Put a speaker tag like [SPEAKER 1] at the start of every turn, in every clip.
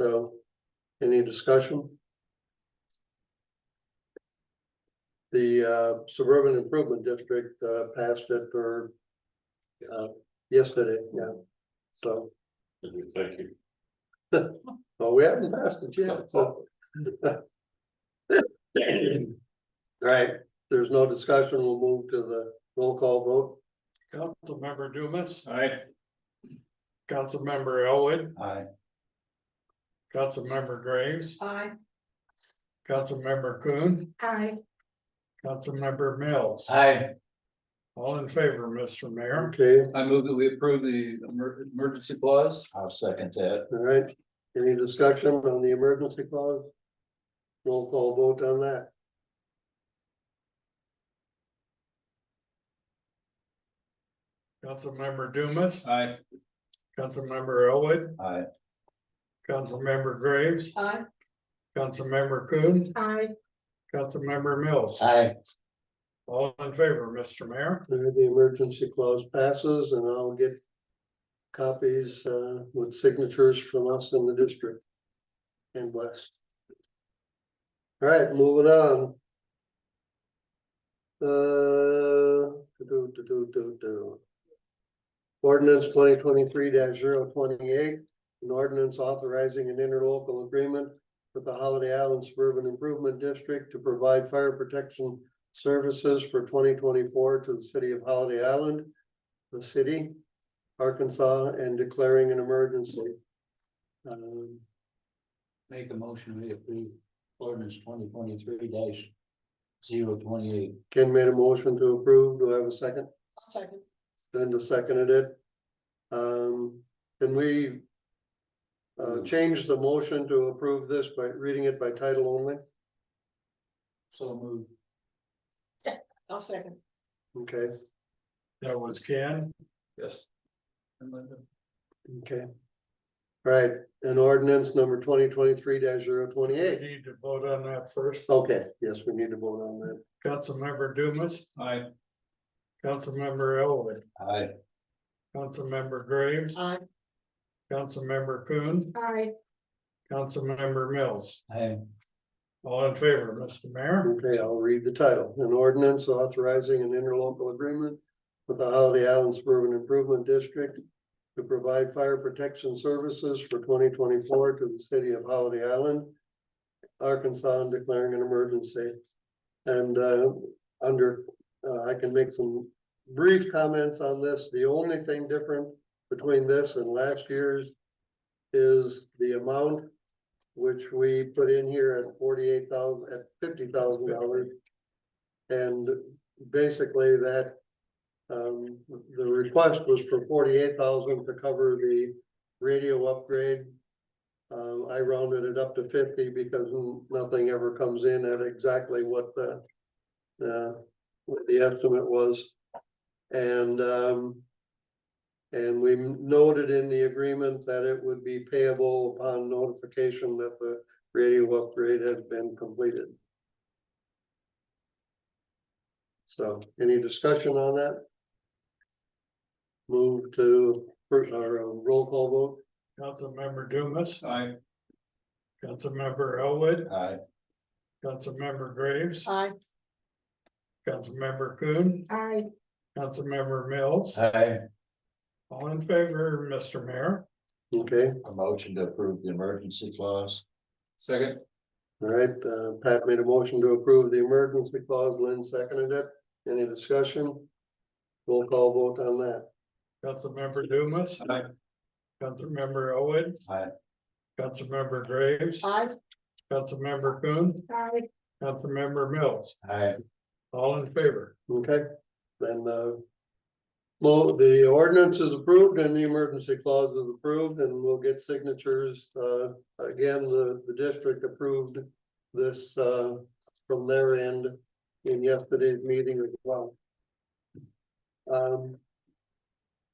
[SPEAKER 1] So, any discussion? The uh, suburban improvement district uh, passed it for uh, yesterday, yeah, so,
[SPEAKER 2] Thank you.
[SPEAKER 1] well, we haven't passed it yet, so. All right, there's no discussion, we'll move to the roll call vote.
[SPEAKER 3] Councilmember Dumas,
[SPEAKER 2] Aye.
[SPEAKER 3] Councilmember Elwood,
[SPEAKER 4] Aye.
[SPEAKER 3] Councilmember Graves,
[SPEAKER 5] Aye.
[SPEAKER 3] Councilmember Coon,
[SPEAKER 5] Aye.
[SPEAKER 3] Councilmember Mills.
[SPEAKER 4] Aye.
[SPEAKER 3] All in favor, Mr. Mayor.
[SPEAKER 1] Okay,
[SPEAKER 4] I move that we approve the emer- emergency clause. I'll second that.
[SPEAKER 1] all right, any discussion on the emergency clause? Roll call vote on that.
[SPEAKER 3] Councilmember Dumas,
[SPEAKER 2] Aye.
[SPEAKER 3] Councilmember Elwood,
[SPEAKER 4] Aye.
[SPEAKER 3] Councilmember Graves,
[SPEAKER 5] Aye.
[SPEAKER 3] Councilmember Coon,
[SPEAKER 5] Aye.
[SPEAKER 3] Councilmember Mills.
[SPEAKER 4] Aye.
[SPEAKER 3] All in favor, Mr. Mayor.
[SPEAKER 1] All right, The emergency clause passes and I'll get copies uh, with signatures from us in the district and West. All right, moving on. Uh, do, do, do, do, do. Ordinance twenty twenty-three 28 an ordinance authorizing an interlocal agreement with the Holiday Island Suburban Improvement District to provide fire protection services for twenty twenty-four to the city of Holiday Island, the city, Arkansas, and declaring an emergency. Um,
[SPEAKER 4] Make a motion, we approve ordinance twenty twenty-three dash zero twenty-eight.
[SPEAKER 1] Ken made a motion to approve. Do I have a second?
[SPEAKER 5] Second.
[SPEAKER 1] Linda seconded it. Um, can we uh, change the motion to approve this by reading it by title only?
[SPEAKER 4] So move.
[SPEAKER 5] I'll second.
[SPEAKER 1] Okay,
[SPEAKER 3] That was Ken.
[SPEAKER 2] Yes.
[SPEAKER 1] okay. All right, and ordinance number twenty twenty-three 28
[SPEAKER 3] We Need to vote on that first.
[SPEAKER 1] Okay, yes, we need to vote on that.
[SPEAKER 3] Councilmember Dumas,
[SPEAKER 2] Aye.
[SPEAKER 3] Councilmember Elwood,
[SPEAKER 4] Aye.
[SPEAKER 3] Councilmember Graves,
[SPEAKER 5] Aye.
[SPEAKER 3] Councilmember Coon,
[SPEAKER 5] Aye.
[SPEAKER 3] Councilmember Mills.
[SPEAKER 4] Aye.
[SPEAKER 3] All in favor, Mr. Mayor.
[SPEAKER 1] Okay, I'll read the title. An ordinance authorizing an interlocal agreement with the Holiday Island Suburban Improvement District to provide fire protection services for twenty twenty-four to the city of Holiday Island, Arkansas, and declaring an emergency. And uh, under, uh, I can make some brief comments on this. The only thing different between this and last year's is the amount which we put in here at forty-eight thousand, at fifty thousand dollars. And basically that, um, the request was for forty-eight thousand to cover the radio upgrade. Uh, I rounded it up to fifty because nothing ever comes in at exactly what the, uh, what the estimate was. And, um, and we noted in the agreement that it would be payable upon notification that the radio upgrade had been completed. So any discussion on that? Move to, for, or uh, roll call vote?
[SPEAKER 3] Councilmember Dumas,
[SPEAKER 2] Aye.
[SPEAKER 3] Councilmember Elwood,
[SPEAKER 4] Aye.
[SPEAKER 3] Councilmember Graves,
[SPEAKER 5] Aye.
[SPEAKER 3] Councilmember Coon,
[SPEAKER 5] Aye.
[SPEAKER 3] Councilmember Mills.
[SPEAKER 4] Aye.
[SPEAKER 3] All in favor, Mr. Mayor.
[SPEAKER 1] Okay,
[SPEAKER 4] A motion to approve the emergency clause.
[SPEAKER 2] Second.
[SPEAKER 1] all right, uh, Pat made a motion to approve the emergency clause, Lynn seconded it. Any discussion? Roll call vote on that.
[SPEAKER 3] Councilmember Dumas,
[SPEAKER 2] Aye.
[SPEAKER 3] Councilmember Elwood.
[SPEAKER 4] Aye.
[SPEAKER 3] Councilmember Graves,
[SPEAKER 5] Aye.
[SPEAKER 3] Councilmember Coon,
[SPEAKER 5] Aye.
[SPEAKER 3] Councilmember Mills.
[SPEAKER 4] Aye.
[SPEAKER 3] All in favor.
[SPEAKER 1] Okay, then, uh. Well, the ordinance is approved and the emergency clause is approved and we'll get signatures, uh, again, the, the district approved. This, uh, from their end in yesterday's meeting as well. Um.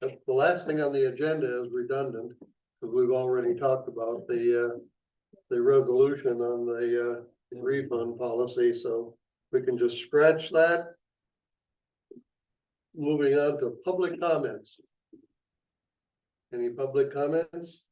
[SPEAKER 1] The, the last thing on the agenda is redundant, because we've already talked about the, uh. The resolution on the, uh, refund policy, so we can just scratch that. Moving on to public comments. Any public comments?